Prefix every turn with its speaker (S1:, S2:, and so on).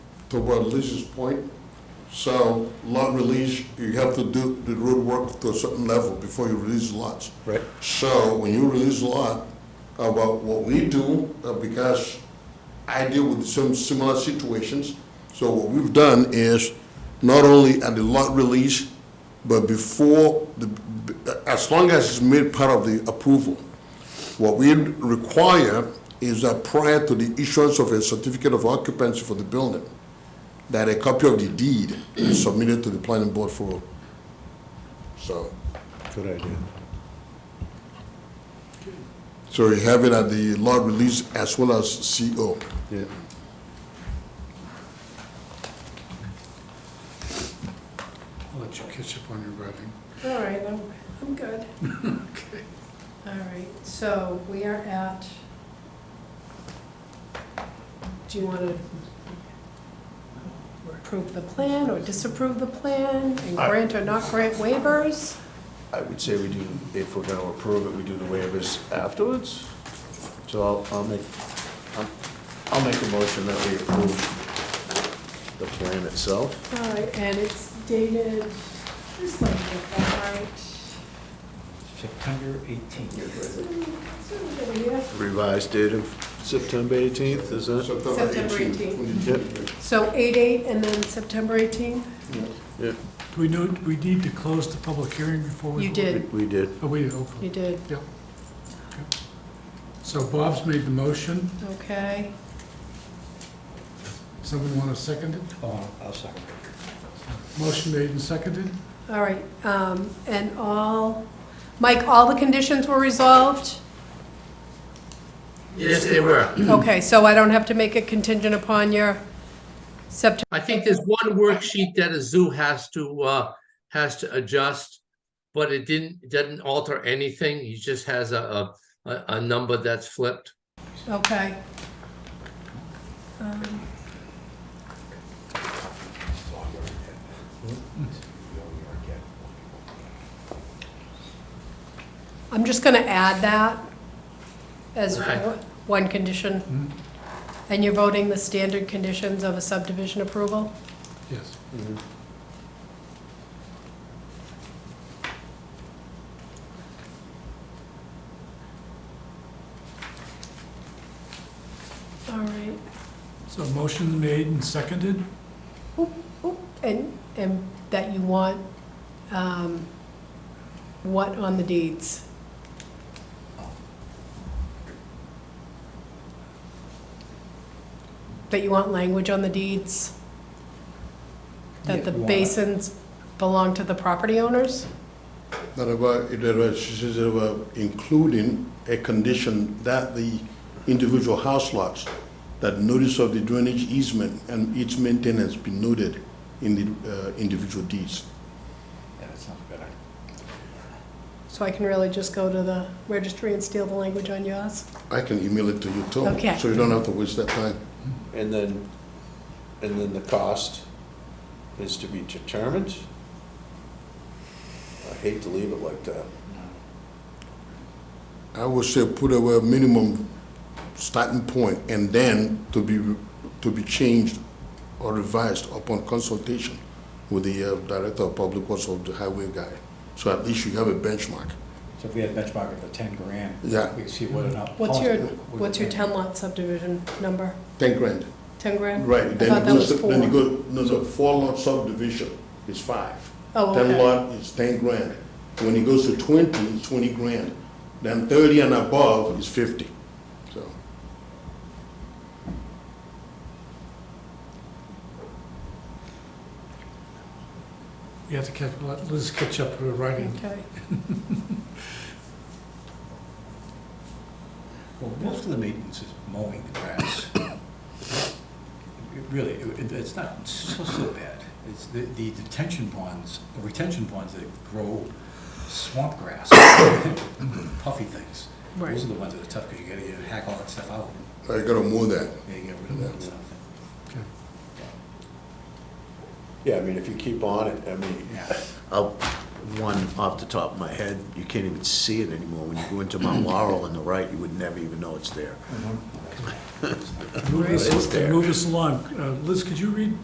S1: to what Lisa's point. So lot release, you have to do the road work to a certain level before you release lots.
S2: Right.
S1: So when you release a lot, about what we do, uh, because I deal with some similar situations. So what we've done is not only at the lot release, but before the, as long as it's made part of the approval. What we require is that prior to the issuance of a certificate of occupancy for the building, that a copy of the deed is submitted to the planning board for, so.
S2: Good idea.
S1: So you have it at the lot release as well as CO.
S2: Yeah.
S3: I'll let you catch up on your writing.
S4: All right, I'm, I'm good.
S3: Okay.
S4: All right, so we are at, do you want to approve the plan or disapprove the plan and
S5: I-
S4: grant or not grant waivers?
S5: I would say we do, if we're gonna approve it, we do the waivers afterwards. So I'll, I'll make, I'll- I'll make a motion that we approve the plan itself.
S4: All right, and it's dated, this is like, all right.
S6: September 18th.
S5: Revised date of September 18th, is that?
S4: September 18th.
S5: Yep.
S4: So eight, eight, and then September 18?
S5: Yeah,
S3: Do we know, do we need to close the public hearing before we?
S4: You
S3: vote?
S4: did,
S5: we- we did.
S3: Oh, we did, okay.
S4: you did,
S3: Yep. Okay. So Bob's made the motion.
S4: okay.
S3: Someone want to second it?
S6: Oh, I'll second.
S3: Motion made and seconded?
S4: All right, um, and all, Mike, all the conditions were resolved?
S7: Yes, they were.
S4: Okay, so I don't have to make a contingent upon your September,
S7: I think there's one worksheet that a zoo has to, uh, has to adjust, but it didn't, it doesn't alter anything. He just has a, a- a, a number that's flipped.
S4: okay? Um, I'm just gonna add that as
S7: Okay.
S4: one condition. And you're voting the standard conditions of a subdivision approval?
S3: Yes.
S4: All right.
S3: So motion made and seconded?
S4: Oop, And, and that you want, um, what on the deeds? That you want language on the deeds? That
S6: Yeah,
S4: the
S6: we want-
S4: basins belong to the property owners?
S1: That about, it about- she says it about including a condition that the individual house lots, that notice of the drainage easement and its maintenance be noted in the uh, individual deeds.
S6: Yeah, that sounds good.
S4: So I can really just go to the registry and steal the language on yours?
S1: I can email it to you too.
S4: Okay.
S1: So you don't have to waste that time.
S5: And then, and then the cost is to be determined. I hate to leave it like that.
S1: I would say put away a minimum starting point and then to be, to be changed or revised upon consultation with the uh, Director of Public Works or the highway guy. So at least you have a benchmark.
S6: So if we had benchmark of the 10 grand.
S1: Yeah.
S6: We could see what enough.
S4: What's your, what's your ten lot subdivision number?
S1: 10 grand.
S4: Ten grand?
S1: Right,
S4: I
S1: then
S4: thought
S1: you
S4: that
S1: go,
S4: was
S1: se- then you
S4: four.
S1: go, no, no, four lot subdivision is five.
S4: Oh,
S1: Ten
S4: okay.
S1: lot is 10 grand. When it goes to 20, it's 20 grand. Then 30 and above is 50, so.
S3: You have to catch, let Liz catch up to her writing.
S4: Okay.
S6: Well, most of the maintenance is mowing the grass. It Really, it- it's not so, so bad. It's the, the detention ponds, the retention ponds that grow swamp grass, puffy things.
S4: Right.
S6: Those are the ones that are tough, because you gotta get, hack all that stuff out,
S1: I gotta move that.
S6: you gotta get rid of that stuff.
S3: Okay.
S5: Yeah, I mean, if you keep on it, I mean,
S6: Yeah.
S5: I'll, one off the top of my head, you can't even see it anymore. When you go into Mount Laurel on the right, you would never even know it's there.
S3: Move
S5: It's
S3: us,
S5: there.
S3: move us along. Uh, Liz, could you read